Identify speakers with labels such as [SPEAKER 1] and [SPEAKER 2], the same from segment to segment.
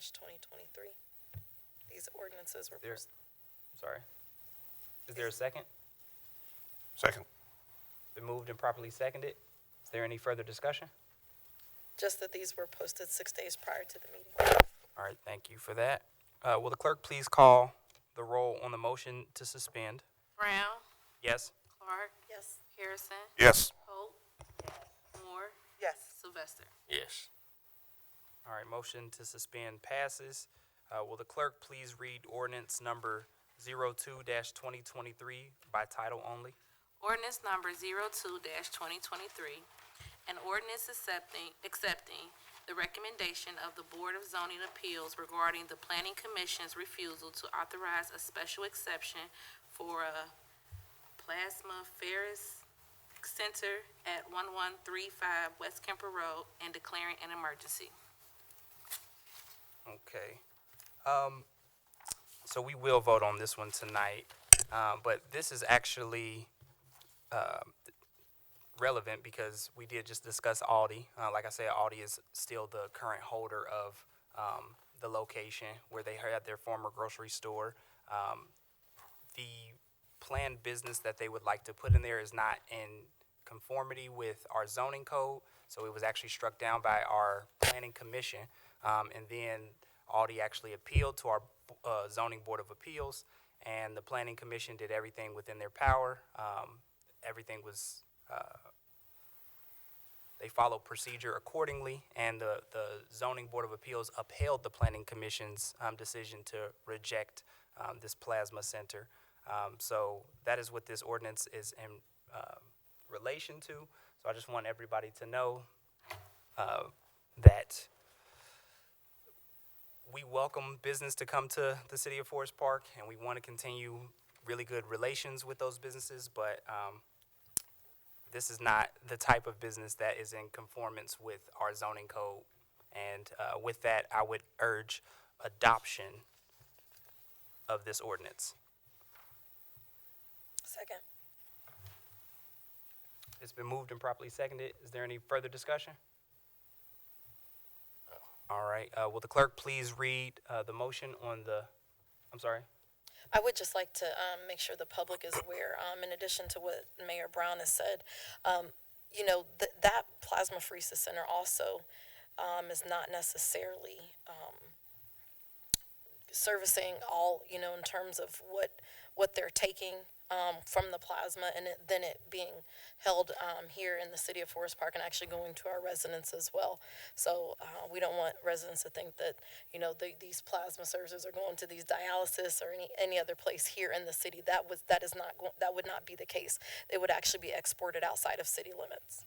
[SPEAKER 1] 2023. These ordinances were
[SPEAKER 2] There-
[SPEAKER 1] posted.
[SPEAKER 2] Sorry. Is there a second?
[SPEAKER 3] Second.
[SPEAKER 2] Been moved and properly seconded. Is there any further discussion?
[SPEAKER 1] Just that these were posted six days prior to the meeting.
[SPEAKER 2] All right, thank you for that. Uh, will the clerk please call the roll on the motion to suspend?
[SPEAKER 4] Brown,
[SPEAKER 2] Yes?
[SPEAKER 4] Clark,
[SPEAKER 1] Yes.
[SPEAKER 4] Harrison,
[SPEAKER 3] Yes.
[SPEAKER 4] Holt, Moore,
[SPEAKER 5] Yes.
[SPEAKER 4] Sylvester.
[SPEAKER 6] Yes.
[SPEAKER 2] All right, motion to suspend passes. Uh, will the clerk please read ordinance number 02-2023 by title only?
[SPEAKER 4] Ordinance number 02-2023, an ordinance accepting, accepting the recommendation of the Board of Zoning Appeals regarding the Planning Commission's refusal to authorize a special exception for a plasma ferris center at 1135 West Kemper Road and declaring an emergency.
[SPEAKER 2] Okay. Um, so we will vote on this one tonight, um, but this is actually, um, relevant because we did just discuss Aldi. Uh, like I said, Aldi is still the current holder of, um, the location where they had their former grocery store. Um, the planned business that they would like to put in there is not in conformity with our zoning code. So it was actually struck down by our planning commission. Um, and then Aldi actually appealed to our, uh, zoning board of appeals. And the planning commission did everything within their power. Um, everything was, uh, they followed procedure accordingly, and the, the zoning board of appeals upheld the planning commission's um, decision to reject um, this plasma center. Um, so that is what this ordinance is in um relation to. So I just want everybody to know uh, that we welcome business to come to the city of Forest Park, and we want to continue really good relations with those businesses, but um, this is not the type of business that is in conformance with our zoning code. And uh, with that, I would urge adoption of this ordinance.
[SPEAKER 1] Second.
[SPEAKER 2] It's been moved and properly seconded. Is there any further discussion? All right, uh, will the clerk please read uh, the motion on the, I'm sorry?
[SPEAKER 1] I would just like to um, make sure the public is aware, um, in addition to what Mayor Brown has said, um, you know, th- that plasma pheresis center also um, is not necessarily um, servicing all, you know, in terms of what what they're taking um, from the plasma and it, then it being held um, here in the city of Forest Park and actually going to our residents as well. So uh, we don't want residents to think that, you know, the, these plasma services are going to these dialysis or any, any other place here in the city. That was, that is not, go- that would not be the case. It would actually be exported outside of city limits.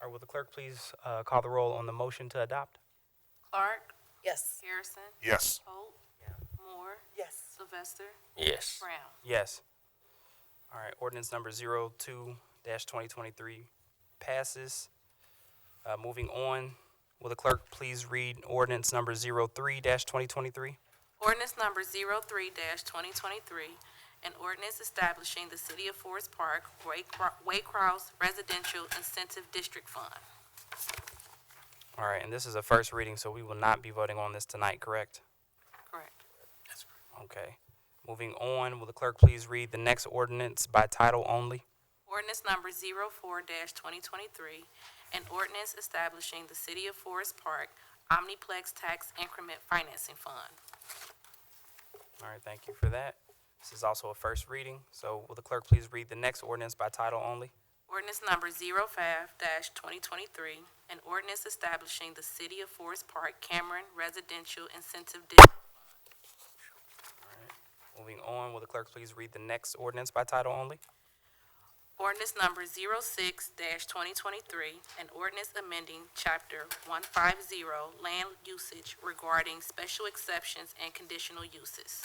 [SPEAKER 2] Or will the clerk please uh, call the roll on the motion to adopt?
[SPEAKER 4] Clark,
[SPEAKER 1] Yes.
[SPEAKER 4] Harrison,
[SPEAKER 3] Yes.
[SPEAKER 4] Holt, Moore,
[SPEAKER 5] Yes.
[SPEAKER 4] Sylvester,
[SPEAKER 6] Yes.
[SPEAKER 4] Brown.
[SPEAKER 2] Yes. All right, ordinance number zero two dash twenty twenty-three passes. Uh, moving on, will the clerk please read ordinance number zero three dash twenty twenty-three?
[SPEAKER 4] Ordinance number 03-2023, an ordinance establishing the City of Forest Park Waycro- Waycross Residential Incentive District Fund.
[SPEAKER 2] All right, and this is a first reading, so we will not be voting on this tonight, correct?
[SPEAKER 4] Correct.
[SPEAKER 2] Okay. Moving on, will the clerk please read the next ordinance by title only?
[SPEAKER 4] Ordinance number 04-2023, an ordinance establishing the City of Forest Park Omniplex Tax Increment Financing Fund.
[SPEAKER 2] All right, thank you for that. This is also a first reading, so will the clerk please read the next ordinance by title only?
[SPEAKER 4] Ordinance number 05-2023, an ordinance establishing the City of Forest Park Cameron Residential Incentive District.
[SPEAKER 2] Moving on, will the clerk please read the next ordinance by title only?
[SPEAKER 4] Ordinance number 06-2023, an ordinance amending Chapter 150 Land Usage regarding special exceptions and conditional uses.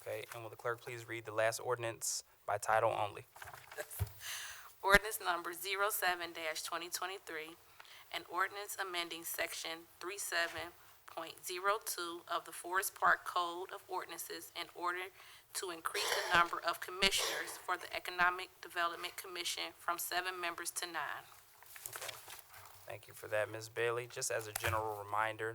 [SPEAKER 2] Okay, and will the clerk please read the last ordinance by title only?
[SPEAKER 4] Ordinance number 07-2023, an ordinance amending Section 37.02 of the Forest Park Code of Ordinances in order to increase the number of commissioners for the Economic Development Commission from seven members to nine.
[SPEAKER 2] Okay. Thank you for that, Ms. Bailey. Just as a general reminder,